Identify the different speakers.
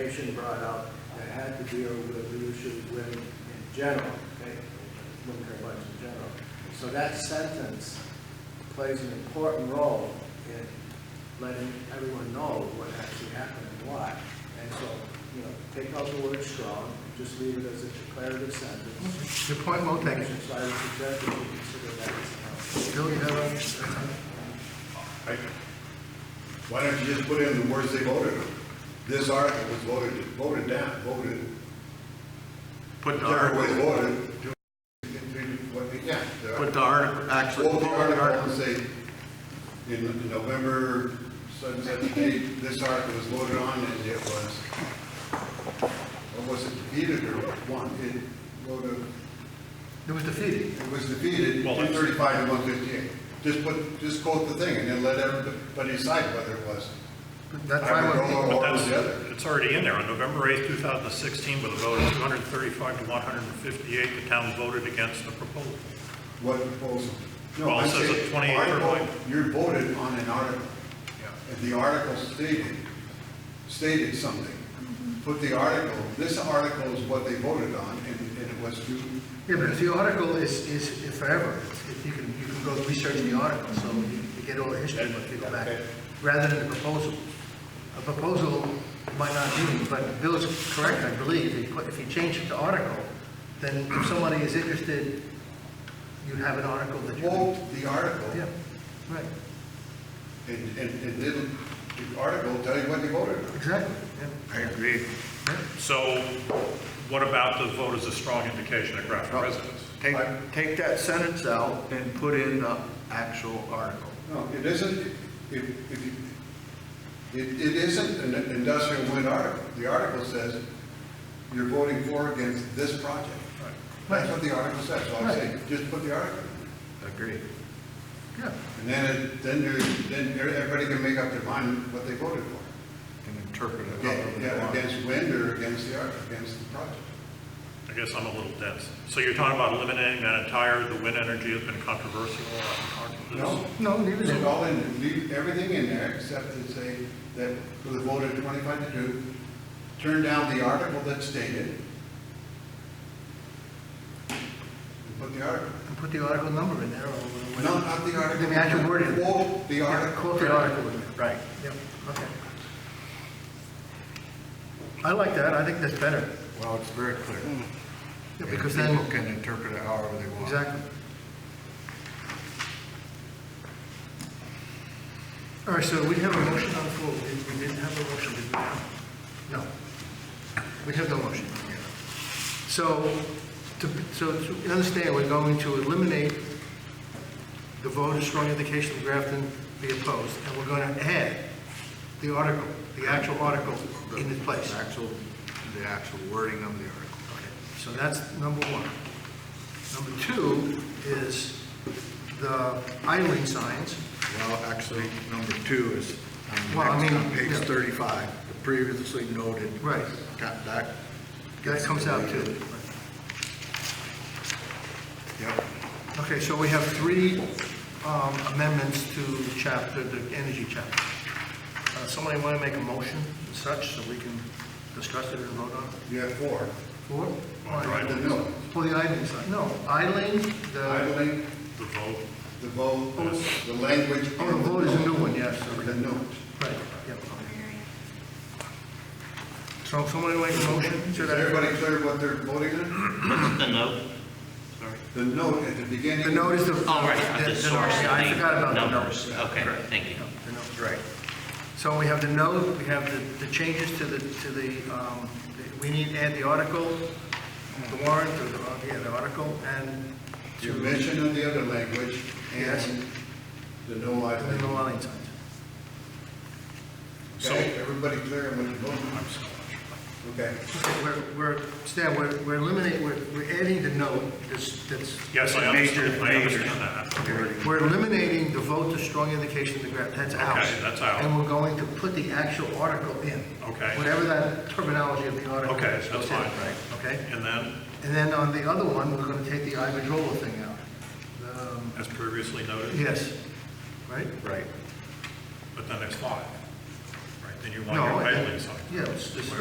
Speaker 1: information brought up that had to deal with the issue of women in general, okay? Women care about in general. So that sentence plays an important role in letting everyone know what actually happened and why. And so, you know, take out the word strong, just leave it as a declarative sentence.
Speaker 2: Your point well taken.
Speaker 1: So I would suggest that you consider that as an option.
Speaker 2: Bill, you have uh,
Speaker 3: Right? Why don't you just put in the words they voted on? This article was voted, voted down, voted,
Speaker 4: Put the
Speaker 3: whichever way
Speaker 4: article,
Speaker 3: voted. do- what they- Yeah. the-
Speaker 4: put the article, actually,
Speaker 3: Vote
Speaker 4: put
Speaker 3: the
Speaker 4: the
Speaker 3: article
Speaker 4: article.
Speaker 3: and say, in in November, such and such date, this article was voted on and it was, or was it defeated or won? It voted,
Speaker 2: a, it was defeated.
Speaker 3: it was defeated,
Speaker 5: Well,
Speaker 3: two
Speaker 5: that's-
Speaker 3: thirty-five to one fifty-eight. Just put, just quote the thing and then let everybody decide whether it was.
Speaker 2: That's why I want,
Speaker 5: But
Speaker 3: Or
Speaker 5: that's,
Speaker 3: the other.
Speaker 5: it's already in there. On November 8th, 2016, with a vote of 235 to 158, the town voted against the proposal.
Speaker 3: What proposal? No,
Speaker 5: Well, it
Speaker 3: I'm
Speaker 5: says
Speaker 3: saying
Speaker 5: a 28 or
Speaker 3: article-
Speaker 5: what?
Speaker 3: You voted on an article,
Speaker 5: Yeah.
Speaker 3: and the article stated, stated something. Put the article, this article is what they voted on, and, and it was to,
Speaker 2: yeah, but if the article is, is forever, it's- if you can, you can go research the article, so you you get all the history if you go back, rather than the proposal. A proposal might not do, but Bill's correct, I believe, if you put- if you change it to article, then if somebody is interested, you have an article that you.
Speaker 3: quote the article,
Speaker 2: Yeah, right,
Speaker 3: and, and it didn't, the article tell you what they voted on.
Speaker 2: exactly, yeah.
Speaker 4: I agree.
Speaker 5: So what about the vote as a strong indication of Grafton residents?
Speaker 4: Take, take that sentence out and put in the actual article.
Speaker 3: No, it isn't, it, it, it it isn't an industrial wind article. The article says, you're voting for or against this project. That's what the article says, so I'm saying, just put the article.
Speaker 4: Agreed.
Speaker 2: Yeah,
Speaker 3: And then, it- then you then everybody can make up their mind what they voted for.
Speaker 4: And interpret it however they
Speaker 3: Yeah,
Speaker 4: want.
Speaker 3: Against wind or against the art, against the project.
Speaker 5: I guess I'm a little dense. So you're talking about eliminating that entire, the wind energy has been controversial. uh, I'm talking to this.
Speaker 3: No?
Speaker 2: no, leave it
Speaker 3: Leave
Speaker 2: in.
Speaker 3: it all in, leave everything in there except to say that for the vote of twenty-five to two, turn down the article that stated. And put the article.
Speaker 2: And put the article number in there or whatever.
Speaker 3: No, not the article.
Speaker 2: The actual wording.
Speaker 3: Quote the
Speaker 2: Yeah,
Speaker 3: article.
Speaker 2: Quote the article in there.
Speaker 4: Right.
Speaker 2: Yep, okay. I like that, I think that's better,
Speaker 4: Well, it's very clear.
Speaker 2: Yeah,
Speaker 4: And
Speaker 2: because then,
Speaker 4: People can interpret it however they want.
Speaker 2: exactly. All right, so we have a motion on the floor, we we didn't have a motion, did we? No. We have no motion. So, to, so to understand, we're going to eliminate the vote of strong indication of Grafton be opposed, and we're going to add the article, the actual article in its place.
Speaker 4: The Actual, the actual wording of the article.
Speaker 2: So that's number one. Number two is the idling signs.
Speaker 4: Well, actually, number two is on
Speaker 2: Well, I
Speaker 4: the next-
Speaker 2: mean,
Speaker 4: on page
Speaker 2: yeah.
Speaker 4: 35, the previously noted.
Speaker 2: Right.
Speaker 4: Got that.
Speaker 2: That comes out too.
Speaker 4: Yep.
Speaker 2: Okay, so we have three um, amendments to chapter, the energy chapter. Uh, Somebody want to make a motion and such, so we can discuss it and vote on it?
Speaker 3: You have four.
Speaker 2: Four?
Speaker 5: Right.
Speaker 3: No,
Speaker 2: For the idling sign, no, idling, the,
Speaker 3: idling,
Speaker 5: The vote,
Speaker 3: the vote, the language.
Speaker 2: oh, the vote is a new one, yes.
Speaker 3: The note.
Speaker 2: Right, yeah. So somebody make a motion
Speaker 3: Is
Speaker 2: to that?
Speaker 3: everybody clear what they're voting on?
Speaker 6: The note? Sorry.
Speaker 3: The note at the beginning.
Speaker 2: The note is the.
Speaker 6: Oh, right, I'm
Speaker 2: the-
Speaker 6: just
Speaker 2: the
Speaker 6: sorry.
Speaker 2: note. Yeah, I forgot about the note.
Speaker 6: Numbers, okay, thank you.
Speaker 2: The note, right. So we have the note, we have the, the changes to the, to the, um, the- we need to add the article, the warrant, or the, uh, yeah, the article, and
Speaker 3: You
Speaker 2: to,
Speaker 3: mentioned on the other language
Speaker 2: Yes.
Speaker 3: and the no
Speaker 2: and then the
Speaker 3: idling.
Speaker 2: warning signs.
Speaker 3: Okay, everybody clear on what you're voting on? Okay.
Speaker 2: Okay, we're, we're, Stan, we're, we're eliminating, we're, we're adding the note, this, that's,
Speaker 5: yes, I
Speaker 4: Major,
Speaker 5: understand, I
Speaker 4: major.
Speaker 5: understand that.
Speaker 2: we're eliminating the vote to strong indication of the grant, that's out.
Speaker 5: Okay, that's out.
Speaker 2: And we're going to put the actual article in.
Speaker 5: Okay.
Speaker 2: Whatever that terminology of the article.
Speaker 5: Okay,
Speaker 2: is,
Speaker 5: that's
Speaker 2: in,
Speaker 5: fine.
Speaker 2: Okay?
Speaker 5: And then,
Speaker 2: And then on the other one, we're going to take the Iberdrola thing out. Um,
Speaker 5: as previously noted,
Speaker 2: Yes, right?
Speaker 4: Right.
Speaker 5: but then there's five. Right, then you want
Speaker 2: No,
Speaker 5: your
Speaker 2: I-
Speaker 5: idling sign.
Speaker 2: Yeah, it's just